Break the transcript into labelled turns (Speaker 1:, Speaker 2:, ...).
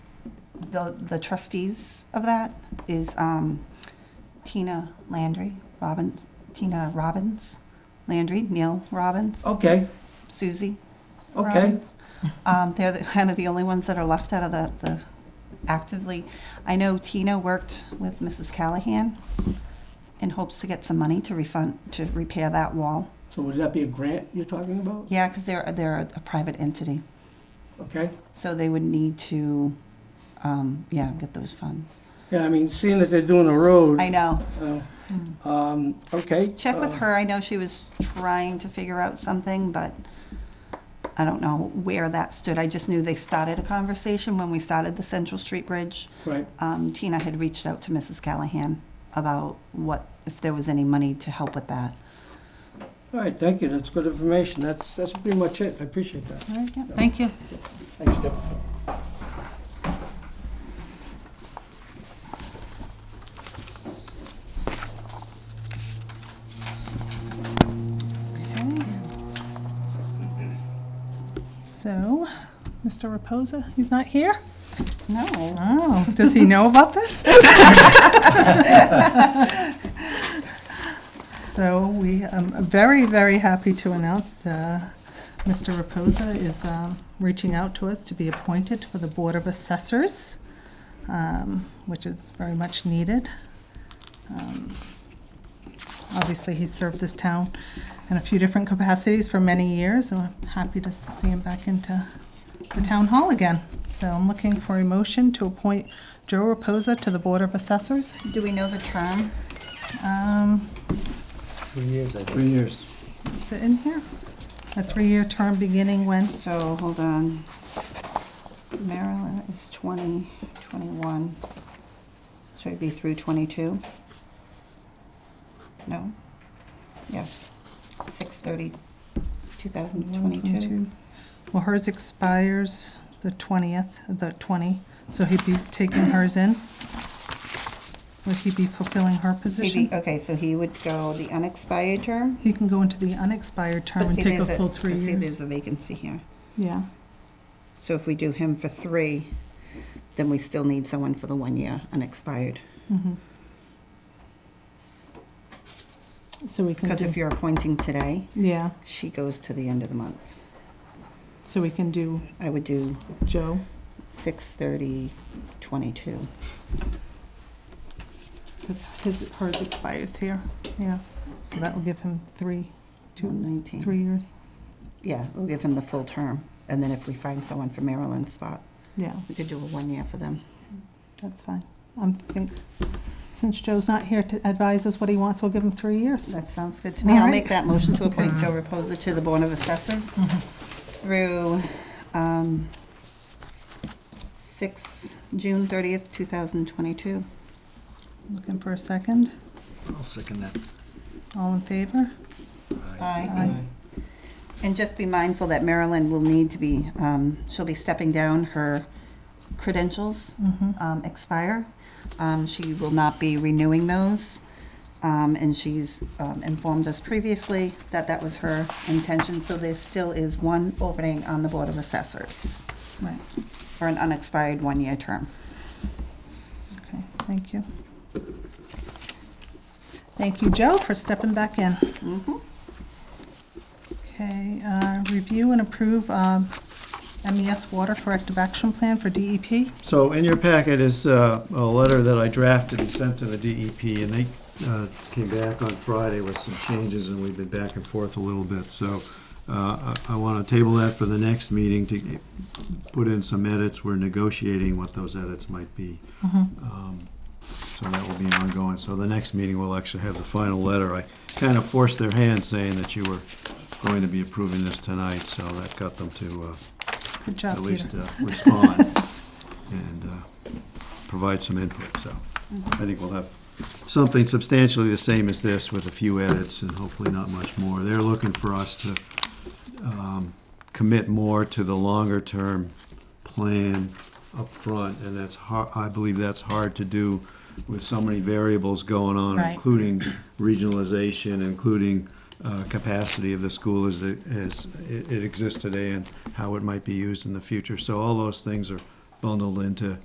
Speaker 1: the the trustees of that is um, Tina Landry, Robbins, Tina Robbins, Landry, Neil Robbins,
Speaker 2: Okay,
Speaker 1: Susie
Speaker 2: Oh. okay.
Speaker 1: Robbins. Um, They're the- kind of the only ones that are left out of the the actively. I know Tina worked with Mrs. Callahan in hopes to get some money to refund, to repair that wall.
Speaker 2: So would that be a grant you're talking about?
Speaker 1: Yeah, because they're, they're a private entity,
Speaker 2: Okay.
Speaker 1: so they would need to, um, yeah, get those funds.
Speaker 2: Yeah, I mean, seeing that they're doing a road.
Speaker 1: I know.
Speaker 2: uh, Um, okay.
Speaker 1: Check with
Speaker 2: uh,
Speaker 1: her. I know she was trying to figure out something, but I don't know where that stood. I just knew they started a conversation when we started the Central Street Bridge.
Speaker 2: Right,
Speaker 1: Um, Tina had reached out to Mrs. Callahan about what, if there was any money to help with that.
Speaker 2: all right, thank you, that's good information, that's, that's pretty much it, I appreciate that.
Speaker 1: All right, yeah.
Speaker 3: Thank you.
Speaker 2: Thanks, Deb.
Speaker 3: So, Mr. Reposa, he's not here?
Speaker 1: No.
Speaker 3: Oh, does he know about this? So we are very, very happy to announce uh, Mr. Reposa is um, reaching out to us to be appointed for the Board of Assessors, um, which is very much needed. Um, Obviously, he's served this town in a few different capacities for many years, so I'm happy to see him back into the town hall again. So I'm looking for a motion to appoint Joe Reposa to the Board of Assessors.
Speaker 1: Do we know the term?
Speaker 3: Um,
Speaker 4: Three years, I think.
Speaker 2: Three years.
Speaker 3: Is it in here? A three-year term beginning when?
Speaker 1: So, hold on. Maryland is 20, 21. So it'd be through 22? No? Yes. 6:30, 2022.
Speaker 3: Well, hers expires the 20th, the 20, so he'd be taking hers in. Would he be fulfilling her
Speaker 1: Maybe, uh,
Speaker 3: position?
Speaker 1: okay, so he would go the unexpired term?
Speaker 3: He can go into the unexpired term
Speaker 1: But
Speaker 3: and
Speaker 1: see,
Speaker 3: take a
Speaker 1: there's
Speaker 3: full three
Speaker 1: but See, there's
Speaker 3: years.
Speaker 1: a vacancy here.
Speaker 3: Yeah,
Speaker 1: So if we do him for three, then we still need someone for the one year unexpired.
Speaker 3: mhm. So we can
Speaker 1: Because if
Speaker 3: do,
Speaker 1: you're appointing today,
Speaker 3: yeah,
Speaker 1: she goes to the end of the month.
Speaker 3: so we can do
Speaker 1: I would do
Speaker 3: Joe.
Speaker 1: Six thirty, twenty-two.
Speaker 3: Because his, hers expires here, yeah. So that will give him three, two,
Speaker 1: 19.
Speaker 3: three years,
Speaker 1: Yeah, we'll give him the full term, and then if we find someone for Maryland's spot,
Speaker 3: yeah,
Speaker 1: we could do a one-year for them.
Speaker 3: that's fine. I'm think, since Joe's not here to advise us what he wants, we'll give him three years.
Speaker 1: That sounds good to me. I'll
Speaker 3: Alright.
Speaker 1: make that motion to appoint Joe Reposa to the Board of Assessors through um, 6, June 30th, 2022.
Speaker 3: Looking for a second,
Speaker 4: I'll second that.
Speaker 3: all in favor?
Speaker 1: Aye.
Speaker 3: Aye.
Speaker 1: And just be mindful that Marilyn will need to be, um, she'll be stepping down, her credentials
Speaker 3: Mm-hmm.
Speaker 1: um, expire. Um, She will not be renewing those, Um, and she's um, informed us previously that that was her intention, so there still is one opening on the Board of Assessors
Speaker 3: Right,
Speaker 1: for an unexpired one-year term.
Speaker 3: okay, thank you. Thank you, Joe, for stepping back in. Okay, uh, review and approve um, MES Water Corrective Action Plan for E DEP.
Speaker 5: So in your packet is uh, a letter that I drafted and sent to the DEP, and they uh, came back on Friday with some changes, and we've been back and forth a little bit. So uh, I want to table that for the next meeting to put in some edits. We're negotiating what those edits might be. Um, So that will be ongoing. So the next meeting, we'll actually have the final letter. I kind of forced their hand saying that you were going to be approving this tonight, so that got them to uh,
Speaker 3: Good job,
Speaker 5: at
Speaker 3: Peter.
Speaker 5: least uh, respond and uh, provide some input, so I think we'll have something substantially the same as this with a few edits and hopefully not much more. They're looking for us to um, commit more to the longer-term plan up front, and that's hard, I believe that's hard to do with so many variables going on,
Speaker 3: Right.
Speaker 5: including regionalization, including uh, capacity of the school as, it- as it it exists today and how it might be used in the future. So all those things are bundled into